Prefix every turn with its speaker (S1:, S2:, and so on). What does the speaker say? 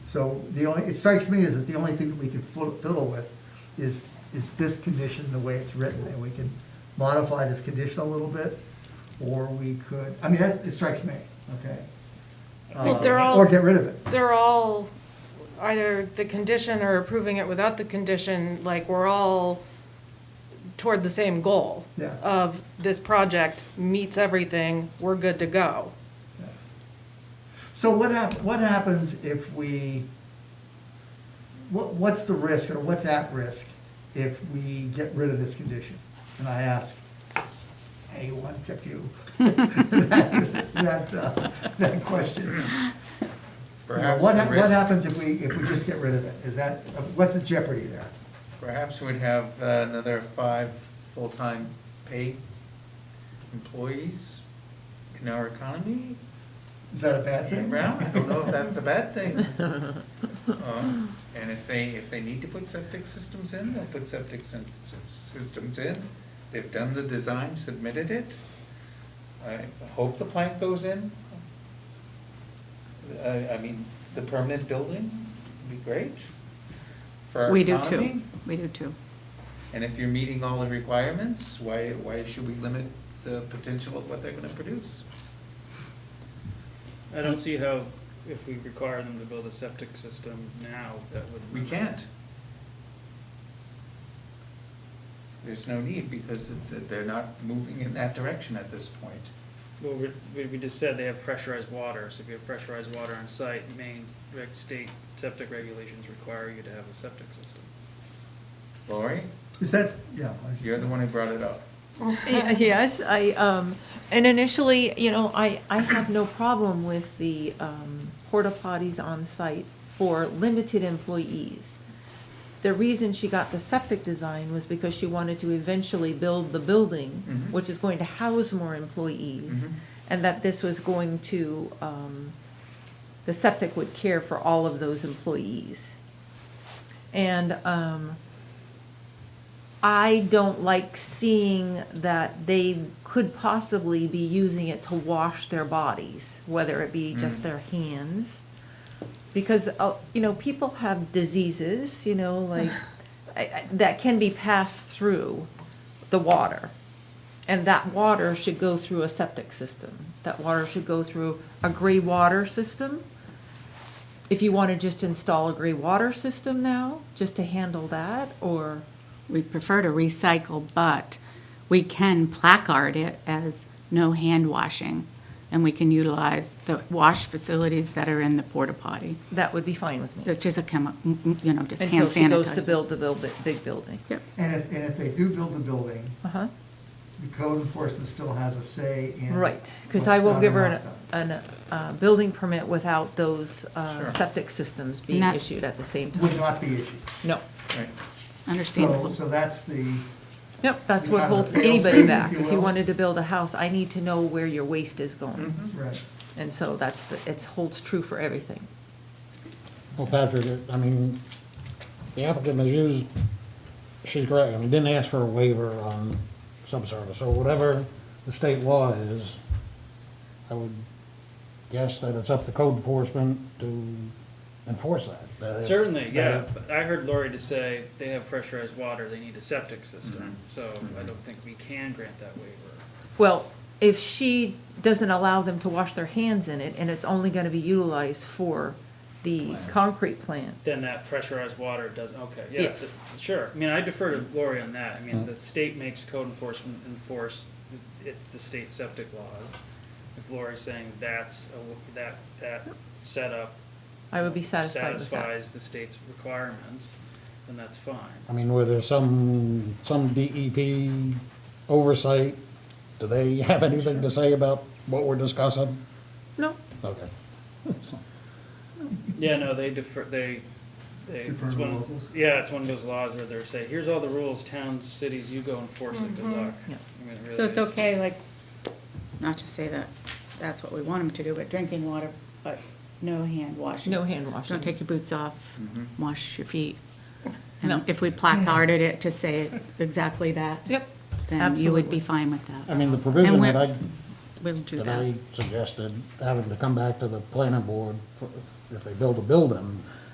S1: So the only, it strikes me as that the only thing that we can fiddle fiddle with is, is this condition, the way it's written, and we can modify this condition a little bit, or we could, I mean, that's, it strikes me, okay?
S2: But
S1: Uh,
S2: they're all-
S1: Or get rid of it.
S2: They're all either the condition or approving it without the condition, like, we're all toward the same goal.
S1: Yeah.
S2: Of this project meets everything, we're good to go.
S1: So what hap, what happens if we, what, what's the risk or what's at risk if we get rid of this condition? And I ask anyone except you that, that, uh, that question. Now,
S3: Perhaps
S1: What,
S3: the
S1: hap- what
S3: risk-
S1: happens if we, if we just get rid of it? Is that, what's the jeopardy there?
S3: Perhaps we'd have uh, another five full-time paid employees in our economy
S1: Is that a bad
S3: in
S1: thing?
S3: Brown. I don't know if that's a bad thing. Uh, And if they, if they need to put septic systems in, they'll put septic syn- systems in. They've done the design, submitted it. I hope the plant goes in. I, I mean, the permanent building would be great for our
S4: We do
S3: economy.
S4: too. We do too.
S3: And if you're meeting all the requirements, why, why should we limit the potential of what they're gonna produce?
S5: I don't see how, if we require them to build a septic system now, that would.
S3: We can't. There's no need, because it- they're not moving in that direction at this point.
S5: Well, we- we, we just said they have pressurized water, so if you have pressurized water on site, Maine, reg- state septic regulations require you to have a septic system.
S3: Lori,
S1: Is that, yeah. I was just-
S3: you're the one who brought it up.
S6: Y- Yes, I, um, and initially, you know, I, I have no problem with the, um, porta potties on site for limited employees. The reason she got the septic design was because she wanted to eventually build the building,
S3: Mhm.
S6: which is going to house more employees.
S3: Mhm.
S6: And that this was going to, um, the septic would care for all of those employees. And, um, I don't like seeing that they could possibly be using it to wash their bodies, whether it be just their hands. Because, uh, you know, people have diseases, you know, like, I- I- that can be passed through the water. And that water should go through a septic system. That water should go through a gray water system. If you want to just install a gray water system now, just to handle that, or.
S4: We prefer to recycle, but we can placard it as no hand washing. And we can utilize the wash facilities that are in the porta potty,
S6: That would be fine with me.
S4: which is a chemi, you know, just hand
S6: Until
S4: sanitizer.
S6: she goes to build the build, big building.
S4: Yep.
S1: And if, and if they do build the building,
S6: Uh-huh,
S1: the code enforcement still has a say in.
S6: right,
S1: what's
S6: because I will
S1: done
S6: give her
S1: or
S6: an,
S1: not done.
S6: an, uh, building permit without those, uh,
S3: Sure.
S6: septic systems being
S4: Not-
S6: issued at the same time.
S1: Would not be issued.
S6: No,
S3: Right.
S1: So,
S4: Understandable.
S1: so that's the,
S6: yep, that's
S1: You
S6: what
S1: have a
S6: holds
S1: fail-safe,
S6: anybody
S1: if
S6: back.
S1: you
S6: If you
S1: will.
S6: wanted to build a house, I need to know where your waste is going.
S3: Mhm.
S1: right.
S6: And so that's, the it holds true for everything.
S7: Well, Patrick, I mean, the applicant has used, she's correct, I mean, didn't ask for a waiver on subsurface, so whatever the state law is, I would guess that it's up to code enforcement to enforce that. that if-
S5: Certainly, yeah,
S7: that
S5: but I heard Lori to say they have pressurized water, they need a septic
S3: Mm-hmm.
S5: system, so I don't think we can grant that waiver.
S6: Well, if she doesn't allow them to wash their hands in it, and it's only gonna be utilized for the concrete plant,
S5: Then that pressurized water does, okay, yeah,
S6: Yes. Mm-hmm.
S5: th- sure. I mean, I defer to Lori on that. I mean, the state makes code enforcement enforce it, the state septic laws. If Lori's saying that's, a w- that, that setup
S6: I would be satisfied with that.
S5: satisfies the state's requirements, then that's fine.
S7: I mean, where there's some, some DEP oversight, do they have anything to say about what we're discussing?
S6: No,
S7: Okay.
S5: Yeah, no, they defer, they, they.
S1: Defer
S5: it's
S1: to
S5: one-
S1: locals?
S5: Yeah, it's one of those laws where they're saying, here's all the rules, towns, cities, you go enforce it, good luck.
S6: Mm-hmm. Yeah.
S5: I mean, it really
S4: So it's
S5: is.
S4: okay, like, not to say that that's what we want them to do, but drinking water, but no hand washing.
S6: no hand washing.
S4: Don't take your boots off,
S1: Mm-hmm.
S4: wash your feet.
S6: No.
S4: And if we placarded it to say exactly that.
S6: Yep,
S4: Then you would
S6: absolutely.
S4: be fine with that.
S7: I mean, the provision
S4: we're-
S7: that I
S4: We'll do
S7: that I
S4: that.
S7: suggested, having to come back to the planning board for- if they build a building,